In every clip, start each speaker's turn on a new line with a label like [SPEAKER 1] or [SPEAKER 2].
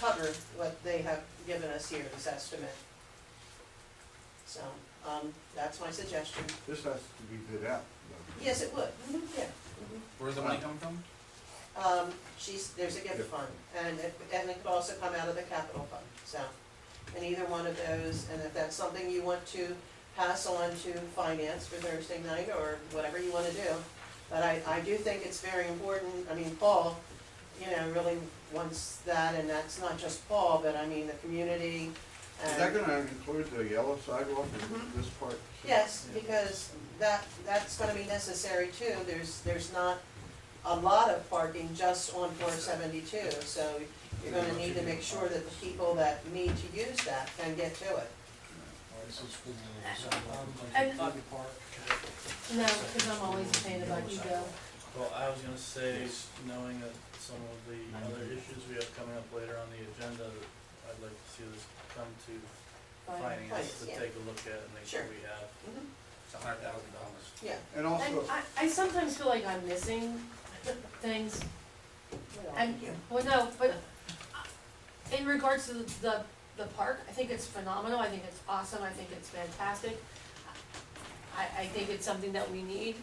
[SPEAKER 1] cover what they have given us here, this estimate. So, um, that's my suggestion.
[SPEAKER 2] This has to be bid out. though.
[SPEAKER 1] Yes, it would, Mhm, yeah. mhm.
[SPEAKER 3] Where's the money coming from?
[SPEAKER 1] Um, she's, there's a gift
[SPEAKER 2] Gift.
[SPEAKER 1] fund, and it, and it could also come out of the capital fund, so. And either one of those, and if that's something you want to pass on to finance for Thursday night, or whatever you wanna do. But I, I do think it's very important, I mean, Paul, you know, really wants that, and that's not just Paul, but I mean, the community and.
[SPEAKER 2] Is that gonna include the yellow sidewalk in this part?
[SPEAKER 1] Mm-hmm. Yes, because that, that's gonna be necessary too, there's, there's not a lot of parking just on four seventy-two, so you're gonna need to make sure that the people that need to use that can get to it.
[SPEAKER 4] And-
[SPEAKER 5] Well,
[SPEAKER 4] No, because I'm always a fan about you, Bill.
[SPEAKER 5] I was gonna say, knowing that some of the other issues we have coming up later on the agenda, I'd like to see this come to
[SPEAKER 4] Fine.
[SPEAKER 5] finance to
[SPEAKER 1] yeah.
[SPEAKER 5] take a look at and make sure
[SPEAKER 1] Sure.
[SPEAKER 5] we have.
[SPEAKER 1] Mhm.
[SPEAKER 3] It's a hundred thousand dollars.
[SPEAKER 1] Yeah.
[SPEAKER 2] And
[SPEAKER 4] And
[SPEAKER 2] also,
[SPEAKER 4] I, I sometimes feel like I'm missing things,
[SPEAKER 1] Well,
[SPEAKER 4] and,
[SPEAKER 1] yeah.
[SPEAKER 4] well, no, but in regards to the, the park, I think it's phenomenal, I think it's awesome, I think it's fantastic. I, I think it's something that we need.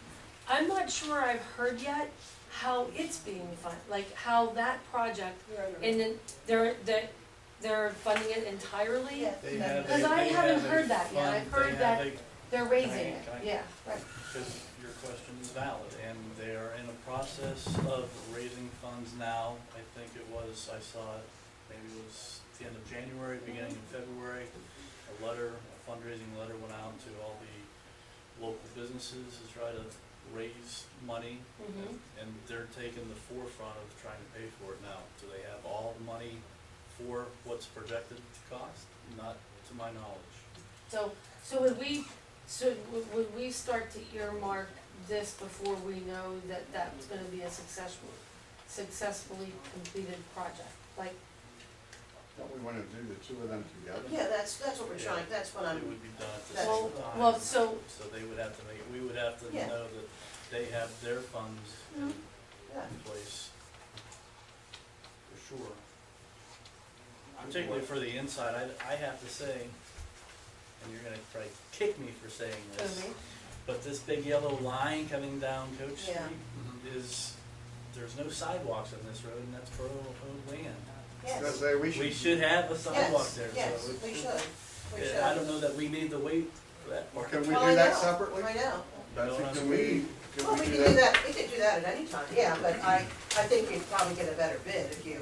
[SPEAKER 4] I'm not sure I've heard yet how it's being funded, like how that project, and then they're, they're, they're funding it entirely?
[SPEAKER 1] Yeah.
[SPEAKER 5] They have a-
[SPEAKER 4] Because I
[SPEAKER 5] they
[SPEAKER 4] haven't
[SPEAKER 5] have a
[SPEAKER 4] heard that yet.
[SPEAKER 5] fund-
[SPEAKER 4] I've heard
[SPEAKER 5] they have
[SPEAKER 4] that-
[SPEAKER 5] a-
[SPEAKER 4] They're raising it,
[SPEAKER 5] Can I- can I-
[SPEAKER 4] yeah, right.
[SPEAKER 5] Because your question is valid, and they are in a process of raising funds now. I think it was, I saw it, maybe it was the end of January, beginning of February. A letter, a fundraising letter went out to all the local businesses to try to raise money.
[SPEAKER 4] Mhm.
[SPEAKER 5] And they're taking the forefront of trying to pay for it now. Do they have all the money for what's projected to cost? Not to my knowledge.
[SPEAKER 4] So, so would we, so would- would we start to earmark this before we know that that's gonna be a successful, successfully completed project? Like,
[SPEAKER 2] don't we wanna do the two of them together?
[SPEAKER 1] Yeah, that's, that's what we're trying, that's what
[SPEAKER 5] It
[SPEAKER 1] I'm,
[SPEAKER 5] would be done at the
[SPEAKER 1] That's-
[SPEAKER 5] same
[SPEAKER 4] well,
[SPEAKER 5] time.
[SPEAKER 4] well, so,
[SPEAKER 5] So they would have to make, we would have to
[SPEAKER 1] Yeah. Mm-hmm.
[SPEAKER 5] know that they have their funds in
[SPEAKER 1] yeah,
[SPEAKER 5] place for sure. Particularly for the inside, I, I have to say, and you're gonna probably kick me for saying this,
[SPEAKER 4] okay,
[SPEAKER 5] but this big yellow line coming down Coach Street
[SPEAKER 1] Yeah.
[SPEAKER 5] is, there's no sidewalks on this road and that's borough owned land.
[SPEAKER 2] Because uh,
[SPEAKER 1] yes,
[SPEAKER 2] they-
[SPEAKER 5] We should have a sidewalk
[SPEAKER 1] yes,
[SPEAKER 5] there, so.
[SPEAKER 1] yes,
[SPEAKER 5] it-
[SPEAKER 1] we should, we should.
[SPEAKER 5] Yeah, I don't know that we need to wait for that
[SPEAKER 2] Well,
[SPEAKER 5] part.
[SPEAKER 2] can we
[SPEAKER 1] Well, I
[SPEAKER 2] do that
[SPEAKER 1] know,
[SPEAKER 2] separately?
[SPEAKER 1] I know.
[SPEAKER 2] Betsy,
[SPEAKER 5] No,
[SPEAKER 2] can we,
[SPEAKER 1] Well, we
[SPEAKER 2] can we
[SPEAKER 1] could
[SPEAKER 2] do
[SPEAKER 1] do
[SPEAKER 2] that?
[SPEAKER 1] that, we could do that at any time, yeah, but I, I think you'd probably get a better bid if you,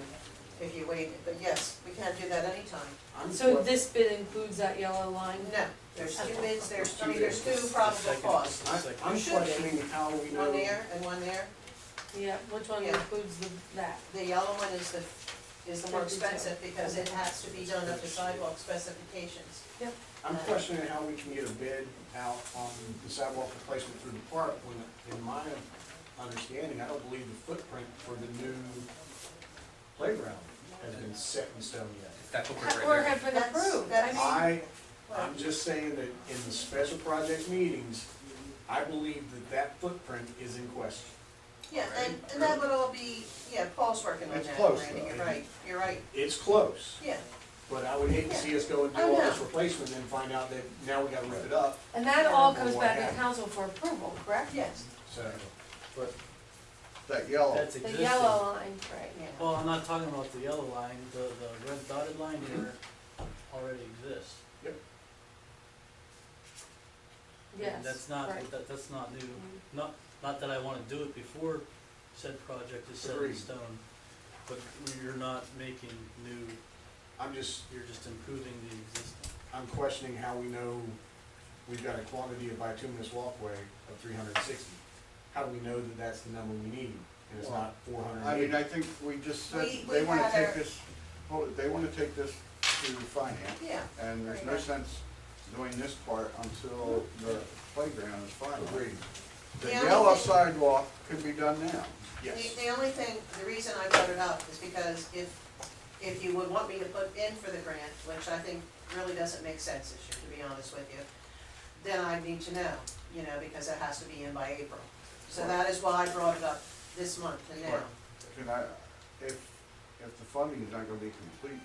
[SPEAKER 1] if you waited, but yes, we can do that anytime.
[SPEAKER 4] so this bid includes that yellow line?
[SPEAKER 1] No, there's two bids, there's, I mean,
[SPEAKER 6] Two
[SPEAKER 1] there's
[SPEAKER 5] bids.
[SPEAKER 1] two probable
[SPEAKER 5] Second.
[SPEAKER 1] costs,
[SPEAKER 6] I-
[SPEAKER 5] Like,
[SPEAKER 6] I'm
[SPEAKER 1] should be.
[SPEAKER 6] questioning how we know.
[SPEAKER 1] one there and one there.
[SPEAKER 4] Yeah, which one
[SPEAKER 1] Yeah.
[SPEAKER 4] includes the, that?
[SPEAKER 1] The yellow one is the, is the more expensive because it has to be done up to sidewalk specifications.
[SPEAKER 6] I'm questioning how we can get a bid out on the sidewalk replacement through the park when, in my understanding, I don't believe the footprint for the new playground has been set in stone yet.
[SPEAKER 3] That's what we're
[SPEAKER 4] Or
[SPEAKER 3] right there.
[SPEAKER 4] have been approved, I
[SPEAKER 1] That's-
[SPEAKER 4] mean,
[SPEAKER 6] I,
[SPEAKER 1] Well,
[SPEAKER 6] I'm just saying that in the special project meetings, I believe that that footprint is in question.
[SPEAKER 1] Yeah, and, and that would all be, yeah, Paul's working on
[SPEAKER 2] It's
[SPEAKER 1] that,
[SPEAKER 2] close,
[SPEAKER 1] Randy,
[SPEAKER 2] though.
[SPEAKER 1] you're right, you're right,
[SPEAKER 6] It's close,
[SPEAKER 1] yeah.
[SPEAKER 6] but I would hate to see us go and do all this replacement and find out that now we gotta rip it up,
[SPEAKER 4] and that all
[SPEAKER 6] Or
[SPEAKER 4] comes
[SPEAKER 6] what
[SPEAKER 4] back to
[SPEAKER 6] happened.
[SPEAKER 4] council for approval, correct?
[SPEAKER 1] Yes,
[SPEAKER 6] so.
[SPEAKER 5] But
[SPEAKER 2] That yellow,
[SPEAKER 5] that's
[SPEAKER 4] The
[SPEAKER 5] existing.
[SPEAKER 4] yellow line, right,
[SPEAKER 1] yeah.
[SPEAKER 5] Well, I'm not talking about the yellow line, the, the red dotted line here already exists.
[SPEAKER 4] yes,
[SPEAKER 5] That's not,
[SPEAKER 4] right.
[SPEAKER 5] that, that's not new,
[SPEAKER 4] Mhm.
[SPEAKER 5] not, not that I wanna do it before said project is set in
[SPEAKER 6] Agreed.
[SPEAKER 5] stone, but you're not making new,
[SPEAKER 6] I'm just,
[SPEAKER 5] you're just improving the existing.
[SPEAKER 6] I'm questioning how we know we've got a quantity of bituminous walkway of three hundred and sixty. How do we know that that's the number we need, and it's not four hundred
[SPEAKER 2] I
[SPEAKER 6] and
[SPEAKER 2] mean,
[SPEAKER 6] eighty?
[SPEAKER 2] I think we just said,
[SPEAKER 1] We-
[SPEAKER 2] they
[SPEAKER 1] we
[SPEAKER 2] wanna
[SPEAKER 1] had
[SPEAKER 2] take
[SPEAKER 1] our-
[SPEAKER 2] this, oh, they wanna take this to finance,
[SPEAKER 1] Yeah,
[SPEAKER 2] and there's no
[SPEAKER 1] Right.
[SPEAKER 2] sense doing this part until the playground is finalized.
[SPEAKER 6] Agreed,
[SPEAKER 2] The
[SPEAKER 1] The only
[SPEAKER 2] yellow
[SPEAKER 1] thing-
[SPEAKER 2] sidewalk could be done now.
[SPEAKER 1] the,
[SPEAKER 6] yes.
[SPEAKER 1] the only thing, the reason I brought it up is because if, if you would want me to put in for the grant, which I think really doesn't make sense this year, to be honest with you, then I need to know, you know, because it has to be in by April. So that is why I brought it up this month and now.
[SPEAKER 2] Right. Can I, if, if the funding is not gonna be complete